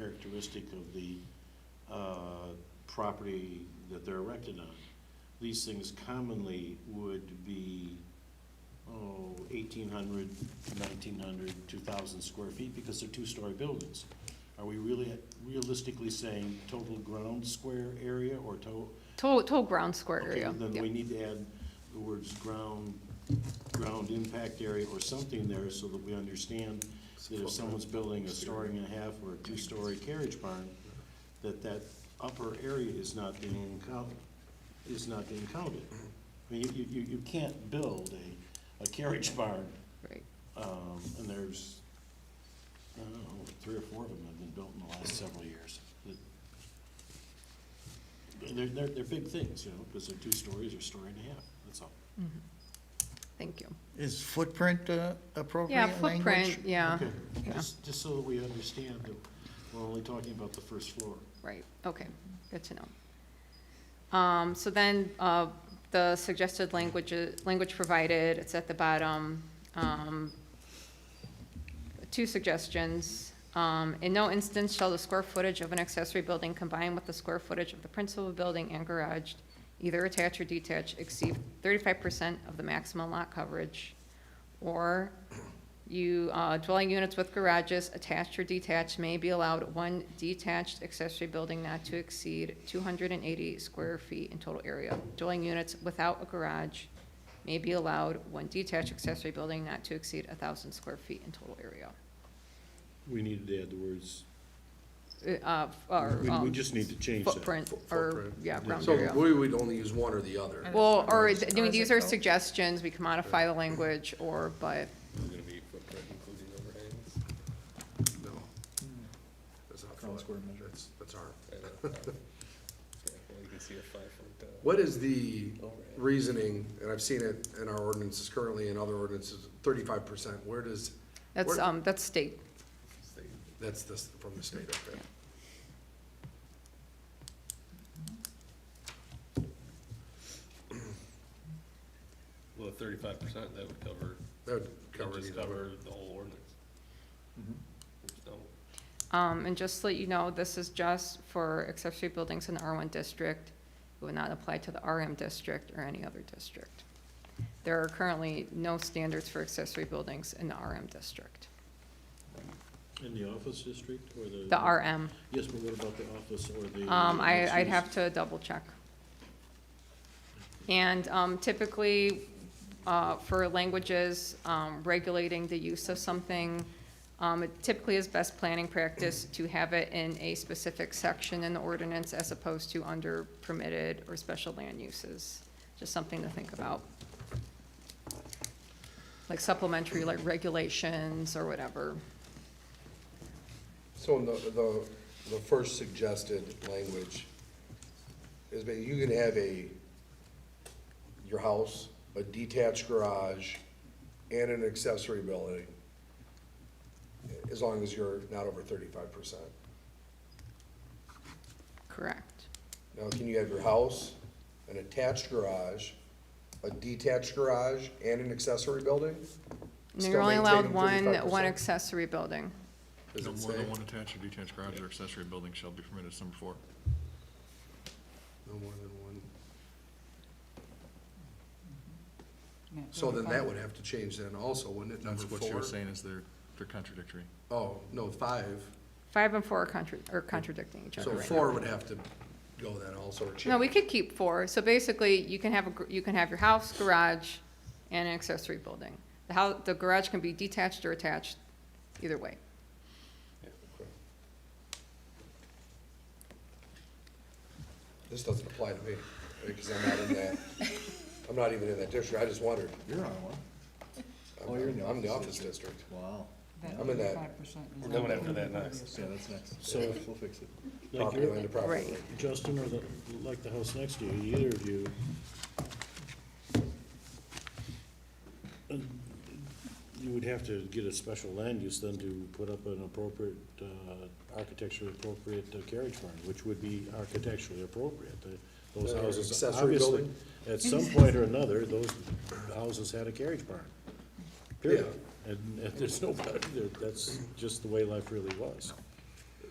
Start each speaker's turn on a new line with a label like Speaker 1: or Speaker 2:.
Speaker 1: characteristic of the uh, property that they're erected on. These things commonly would be, oh, 1,800, 1,900, 2,000 square feet because they're two-story buildings. Are we really realistically saying total ground square area or to?
Speaker 2: Total, total ground square
Speaker 1: Okay,
Speaker 2: area.
Speaker 1: Then
Speaker 2: yeah.
Speaker 1: we need to add the words ground, ground impact area or something there so that we understand that if someone's building a story and a half or a two-story carriage barn, that that upper area is not being counted, is not being counted. I mean, you, you, you can't build a, a carriage barn,
Speaker 2: Right.
Speaker 1: um, and there's, I don't know, three or four of them have been built in the last several years. That- They're, they're, they're big things, you know, because they're two stories or story and a half, that's all.
Speaker 2: Thank you.
Speaker 3: Is footprint uh, appropriate
Speaker 2: Yeah,
Speaker 3: language?
Speaker 2: footprint, yeah,
Speaker 1: Okay,
Speaker 2: yeah.
Speaker 1: just, just so that we understand that we're only talking about the first floor.
Speaker 2: right, okay, good to know. Um, so then, uh, the suggested language, uh, language provided, it's at the bottom. Um, two suggestions. Um, in no instance shall the square footage of an accessory building combined with the square footage of the principal building and garage, either attached or detached, exceed thirty-five percent of the maximum lot coverage. Or you, uh, dwelling units with garages attached or detached may be allowed one detached accessory building not to exceed two hundred and eighty square feet in total area. Dwelling units without a garage may be allowed one detached accessory building not to exceed thousand square feet in total area.
Speaker 1: We needed to add the words,
Speaker 2: Uh, or,
Speaker 1: we, we
Speaker 2: um,
Speaker 1: just need to change that.
Speaker 2: footprint, or, yeah, ground
Speaker 4: So
Speaker 2: area.
Speaker 4: we would only use one or the other.
Speaker 2: Well, or, I mean,
Speaker 3: is
Speaker 2: these
Speaker 3: it
Speaker 2: are
Speaker 3: both?
Speaker 2: suggestions, we can modify the language, or, but,
Speaker 4: gonna be footprint including overhangs? No. That's not
Speaker 5: Ground square
Speaker 4: foot,
Speaker 5: measure.
Speaker 4: that's, that's our.
Speaker 6: Well, you can see a five-foot, uh,
Speaker 4: What is the
Speaker 6: overhang.
Speaker 4: reasoning, and I've seen it in our ordinances currently and other ordinances, thirty-five percent, where does,
Speaker 2: that's,
Speaker 4: Where-
Speaker 2: um, that's state.
Speaker 4: that's this, from the state, okay?
Speaker 6: Well, thirty-five percent, that would cover,
Speaker 4: That would
Speaker 6: that
Speaker 4: cover
Speaker 6: would just
Speaker 4: the other.
Speaker 6: cover the whole ordinance. There's no-
Speaker 2: Um, and just to let you know, this is just for accessory buildings in the R one district. It would not apply to the RM district or any other district. There are currently no standards for accessory buildings in the RM district,
Speaker 1: In the office district or the?
Speaker 2: the RM.
Speaker 1: Yes, but what about the office or the?
Speaker 2: Um, I,
Speaker 1: mixed
Speaker 2: I'd
Speaker 1: use?
Speaker 2: have to double check. And um, typically, uh, for languages, um, regulating the use of something, um, it typically is best planning practice to have it in a specific section in the ordinance as opposed to under permitted or special land uses. Just something to think about. Like supplementary, like regulations or whatever.
Speaker 4: So in the, the, the first suggested language is that you can have a, your house, a detached garage, and an accessory building, as long as you're not over thirty-five percent.
Speaker 2: Correct.
Speaker 4: Now, can you have your house, an attached garage, a detached garage, and an accessory building?
Speaker 2: And you're
Speaker 4: Still
Speaker 2: only allowed
Speaker 4: maintaining
Speaker 2: one,
Speaker 4: 35%.
Speaker 2: one accessory building.
Speaker 4: Does
Speaker 5: No
Speaker 4: it
Speaker 5: more than
Speaker 4: say?
Speaker 5: one attached or detached garage or accessory building shall be permitted, It's number four.
Speaker 4: No more than one. So then that would have to change then also, wouldn't it, number
Speaker 5: That's what you
Speaker 4: four?
Speaker 5: were saying is they're, they're contradictory.
Speaker 4: Oh, no, five.
Speaker 2: Five and four are contra- are contradicting each other
Speaker 4: So
Speaker 2: right now.
Speaker 4: four would have to go then also, or change.
Speaker 2: No, we could keep four. So basically, you can have, a gr- you can have your house, garage, and an accessory building. The house, the garage can be detached or attached, either way.
Speaker 4: This doesn't apply to me, because I'm not in that, I'm not even in that district, I just wondered.
Speaker 5: You're on one. Oh,
Speaker 4: I'm I'm in the office district.
Speaker 5: Wow.
Speaker 4: I'm in that.
Speaker 6: We're going after that next.
Speaker 5: Yeah, that's next.
Speaker 1: So-
Speaker 5: We'll fix it.
Speaker 1: Like
Speaker 4: Property
Speaker 1: your-
Speaker 4: line to property
Speaker 2: Right.
Speaker 4: line.
Speaker 1: Justin or the, like the house next to you, either of you. uh, You would have to get a special land use then to put up an appropriate, uh, architecturally appropriate uh, carriage barn, which would be architecturally appropriate. The- Those
Speaker 4: Or
Speaker 1: houses,
Speaker 4: accessory
Speaker 1: obviously,
Speaker 4: building?
Speaker 1: at some point or another, those houses had a carriage barn. Period. And, and there's nobody, there- that's just the way life really was.